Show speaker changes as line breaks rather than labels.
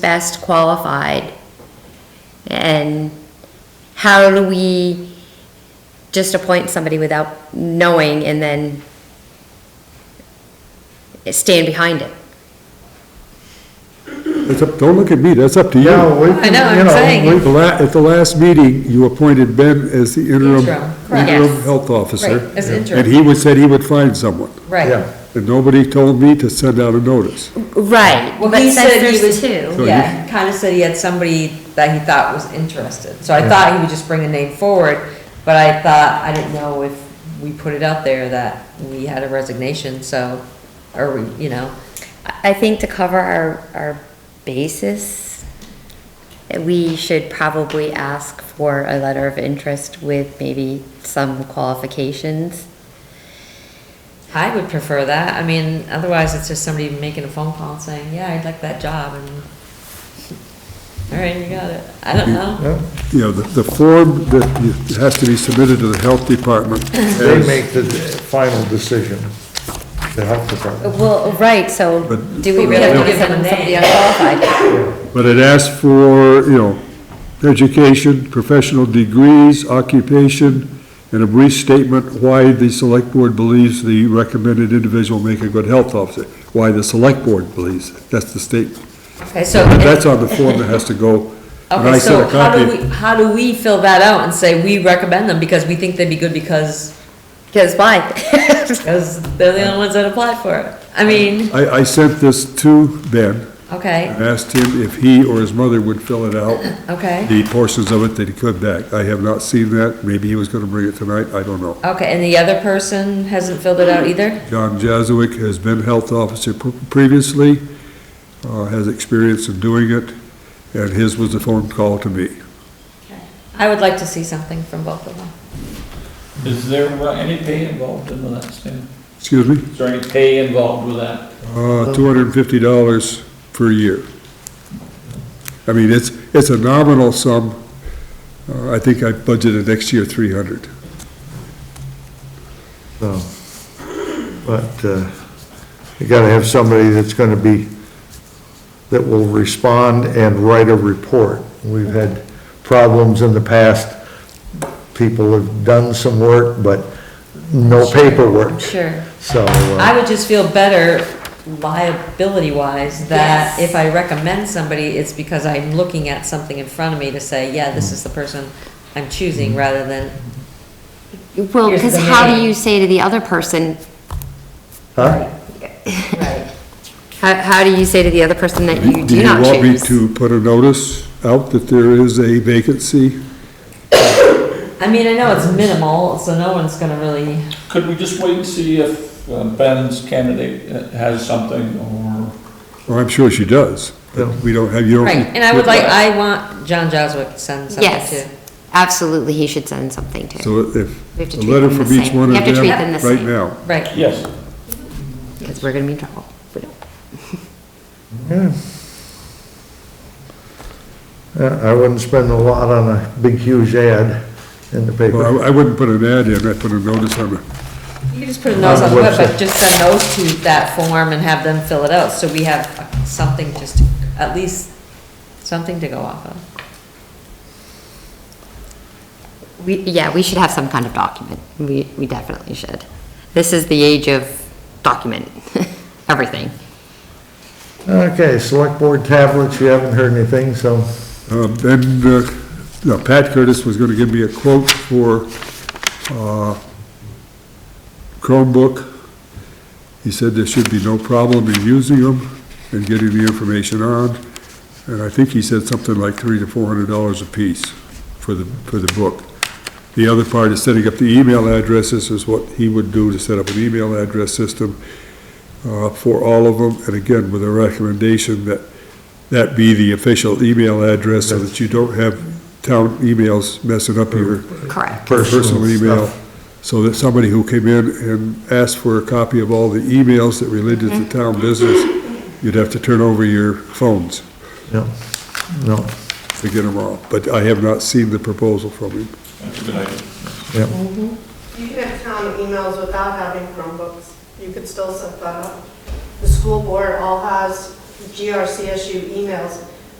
best qualified? And how do we just appoint somebody without knowing and then stand behind it?
It's up, don't look at me, that's up to you.
Yeah, we,
I know,
can- you
I'm
know,
saying.
we
The la, at the last meeting, you appointed Ben as the interim,
Interim,
correct.
interim
Yes.
health officer.
Right, as interim.
And he would, said he would find someone,
Right,
Yeah.
and nobody told me to send out a notice.
Right,
Well,
but
he
since
said he
there's
was-
two,
yeah, he kinda said he had somebody that he thought was interested, so I thought he would just bring a name forward, but I thought, I didn't know if we put it out there that we had a resignation, so, or we, you know,
I I think to cover our, our basis, we should probably ask for a letter of interest with maybe some qualifications.
I would prefer that, I mean, otherwise it's just somebody making a phone call and saying, yeah, I'd like that job, and, all right, you got it, I don't know,
You know, the, the form that you- has to be submitted to the health department.
they
has-
make the final decision, the health department.
Well, right, so
But-
do we
But we
really
have to
have to
give
send
them a
somebody
name.
unqualified?
But it asks for, you know, education, professional degrees, occupation, and a brief statement why the select board believes the recommended individual will make a good health officer, why the select board believes, that's the statement.
okay, so.
But That's on the form that has to go. And I
Okay,
sent
so
a
how do
copy.
we, how do we fill that out and say we recommend them because we think they'd be good because,
Because why?
because they're the only ones that applied for it? I mean,
I, I sent this to Ben,
okay,
and asked him if he or his mother would fill it out,
okay,
the portions of it that he could back. I have not seen that, maybe he was gonna bring it tonight, I don't know.
okay, and the other person hasn't filled it out either?
John Jazowick has been health officer pr- previously, uh, has experience in doing it, and his was a phone call to me.
I would like to see something from both of them.
Is there uh, any pay involved in that, Stan?
Excuse me?
Is there any pay involved with that?
Uh, $250 per year. I mean, it's, it's a nominal sum. Uh, I think I budgeted next year 300.
So, But uh, you gotta have somebody that's gonna be, that will respond and write a report. We've had problems in the past, people have done some work, but no
I'm
paperwork,
sure.
so. uh,
I would just feel better liability-wise that if I recommend somebody, it's because I'm looking at something in front of me to say, yeah, this is the person I'm choosing rather than,
Well,
Here's
because
the
how do
name.
you say to the other person,
Huh?
right.
how, how do you say to the other person that you
Do
do
you
not
want me
choose?
to put a notice out that there is a vacancy?
I mean, I know it's minimal, so no one's gonna really,
Could we just wait and see if uh, Ben's candidate uh, has something or?
Well, I'm sure she does, but we don't have, you don't.
right, and I would like, I want John Joswick to send
Yes.
something too.
Absolutely, he should send something to.
So if,
We have to
a
treat
letter
them the
from each
same.
one
We
of
have to
them,
treat them the
right
same.
now.
Right,
Yes.
Because we're gonna be in trouble. if we don't.
Yeah, I wouldn't spend a lot on a big huge ad in the
Well,
paper.
I I wouldn't put an ad in, I'd put a notice on it.
you can just put a notice on
On
the
the
web, but
website.
just send those to that form and have them fill it out, so we have something just, at least, something to go off of.
We, yeah, we should have some kind of document. We, we definitely should. This is the age of document, everything.
Okay, select board tablets, you haven't heard anything, so,
Um, And, uh, no, Pat Curtis was gonna give me a quote for uh, Chromebook. He said there should be no problem in using them and getting the information on. And I think he said something like three to four hundred dollars apiece for the, for the book. The other part is setting up the email addresses is what he would do to set up an email address system uh, for all of them. And again, with a recommendation that that be the official email address so that you don't have town emails messing up your
Correct.
personal
Personal
email.
stuff.
So that somebody who came in and asked for a copy of all the emails that related to town business, you'd have to turn over your phones
no, no,
to get them all. But I have not seen the proposal from him.
That's a good idea.
yeah.
You can have town emails without having Chromebooks. You could still set that up. The school board all has GRCSU emails.